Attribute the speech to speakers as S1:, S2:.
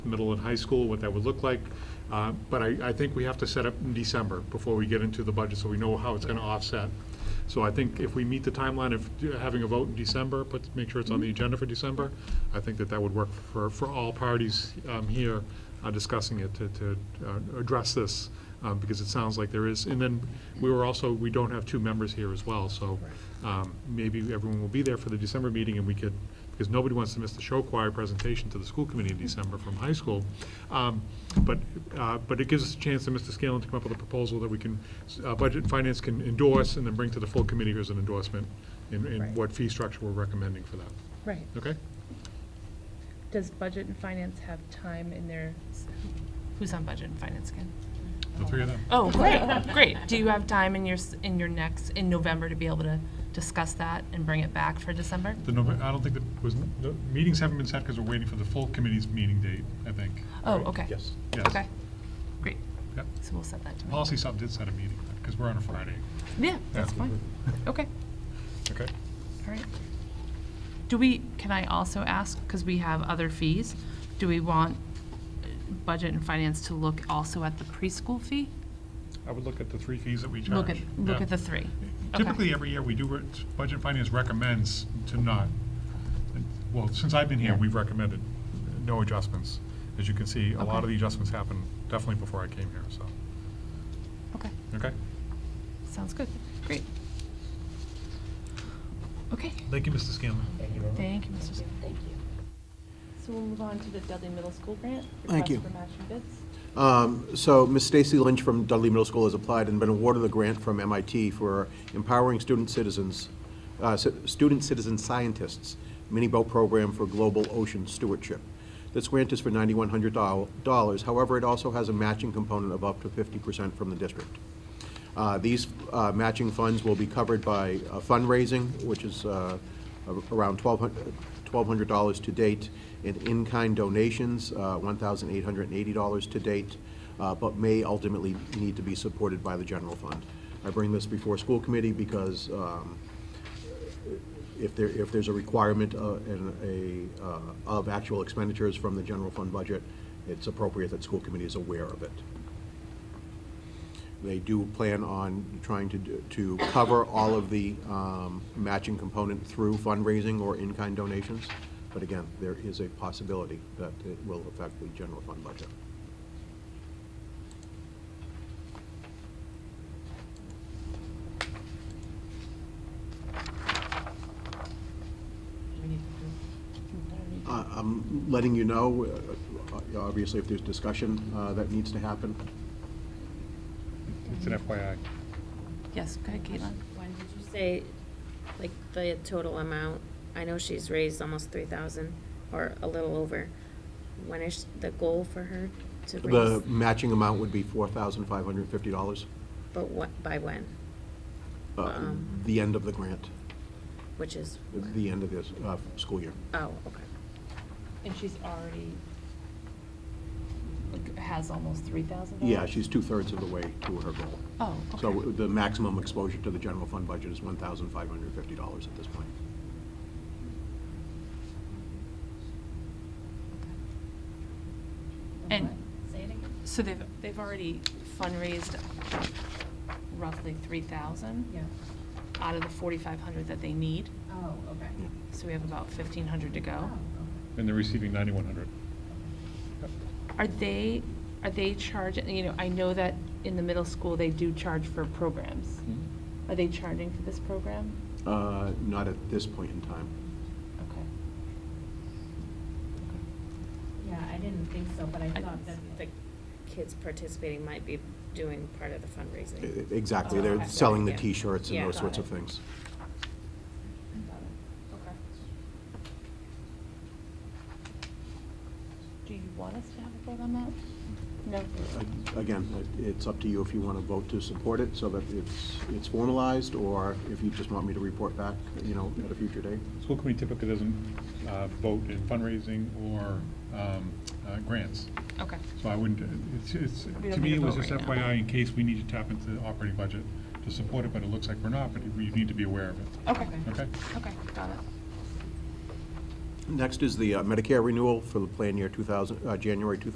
S1: middle and high school, what that would look like. Uh, But I, I think we have to set up in December before we get into the budget, so we know how it's going to offset. So I think if we meet the timeline of having a vote in December, put, make sure it's on the agenda for December, I think that that would work for, for all parties um, here uh, discussing it to, to uh, address this, uh, because it sounds like there is. And then we were also, we don't have two members here as well, so um, maybe everyone will be there for the December meeting and we could, because nobody wants to miss the show choir presentation to the school committee in December from high school. Um, But, uh, but it gives us a chance to Mr. Scanlon to come up with a proposal that we can, uh, Budget and Finance can endorse and then bring to the full committee as an endorsement in, in
S2: Right.
S1: what fee structure we're recommending for that.
S2: Right.
S1: Okay?
S2: Does budget and finance have time in their,
S3: Who's on budget and finance again?
S1: The three of them.
S3: Oh, great, great. Do you have time in your, s- in your next, in November to be able to discuss that and bring it back for December?
S1: The November, I don't think that was, the meetings haven't been set because we're waiting for the full committee's meeting date, I think.
S3: Oh, okay. Yes.
S1: Yes. Oh.
S3: Okay, great.
S1: Yep.
S3: So we'll set that to me.
S1: Policy sub did set a meeting, because we're on a Friday.
S3: Yeah, that's fine. Okay,
S1: Okay.
S3: all right. Do we, can I also ask, because we have other fees, do we want uh, budget and finance to look also at the preschool fee?
S1: I would look at the three fees that we charge.
S3: Look at, look
S1: Yeah.
S3: at the three. Okay.
S1: Typically, every year, we do, re- Budget and Finance recommends to not, well, since I've been here, we've recommended no adjustments. As you can see, a lot of
S3: Okay.
S1: the adjustments happened definitely before I came here, so,
S3: Okay.
S1: okay?
S3: Sounds good. Great. Okay.
S1: Thank you, Mr. Scanlon.
S3: Thank you, Mr. Smith.
S4: Thank you. So we'll move on to the Dudley Middle School grant.
S5: Thank you.
S4: Request for matching bids.
S5: Um, So Ms. Stacy Lynch from Dudley Middle School has applied and been awarded a grant from MIT for empowering student citizens, uh, ci- student citizen scientists, mini boat program for global ocean stewardship. This grant is for $9,100. However, it also has a matching component of up to 50% from the district. Uh, These uh, matching funds will be covered by uh, fundraising, which is uh, a- around $1,200 to date, and in-kind donations, uh, $1,880 to date, uh, but may ultimately need to be supported by the general fund. I bring this before school committee because um, if there, if there's a requirement uh, and a, uh, of actual expenditures from the general fund budget, it's appropriate that school committee is aware of it. They do plan on trying to, do- to cover all of the um, matching component through fundraising or in-kind donations. But again, there is a possibility that it will affect the general fund budget. Uh, I'm letting you know, uh, obviously, if there's discussion uh, that needs to happen.
S1: It's an FYI.
S3: Yes, go ahead, Caitlin.
S6: When did you say, like, the total amount? I know she's raised almost three thousand, or a little over. When is the goal for her to
S5: The
S6: raise?
S5: matching amount would be $4,550,
S6: But what, by when?
S5: uh,
S6: Um.
S5: the end of the grant,
S6: Which is? when?
S5: the end of this uh, school year.
S6: Oh, okay.
S3: And she's already. Has almost three thousand dollars?
S5: Yeah, she's two-thirds of the way to her goal.
S3: Oh,
S5: So
S3: okay.
S5: the maximum exposure to the general fund budget is $1,550 at this point.
S3: And. So they've, they've already fundraised roughly three thousand? Yeah. Out of the forty-five hundred that they need,
S7: Oh, okay.
S3: so we have about fifteen hundred to go.
S1: And they're receiving 9,100.
S3: Are they, are they charging, you know, I know that in the middle school, they do charge for programs. Are they charging for this program?
S5: Uh, Not at this point in time.
S3: Okay.
S7: Yeah, I didn't think so, but I
S3: I-
S7: thought that
S6: The kids participating might be doing part of the
S5: E-
S6: fundraising.
S5: Exactly, they're
S6: Oh, Okay.
S5: selling the
S6: Yeah.
S5: T-shirts and
S6: Yeah.
S5: those sorts of
S6: Got it.
S5: things.
S3: Do you want us to have a vote on that? No?
S5: A- Uh, Again, it- it's up to you if you want to vote to support it so that it's it's formalized, or if you just want me to report back, you know, at a future date.
S1: School committee typically doesn't uh, vote in fundraising or um, uh, grants.
S3: Okay.
S1: So I wouldn't, it's, it's,
S3: We don't
S1: to me,
S3: need
S1: it
S3: to
S1: was
S3: vote
S1: just
S3: right now.
S1: FYI in case we need to tap into the operating budget to support it, but it looks like we're not, but we need to be aware of it,
S3: Okay.
S1: okay?
S3: Okay, got it.
S5: Next is the uh, Medicare renewal for the plan year 2000, uh, January 2000.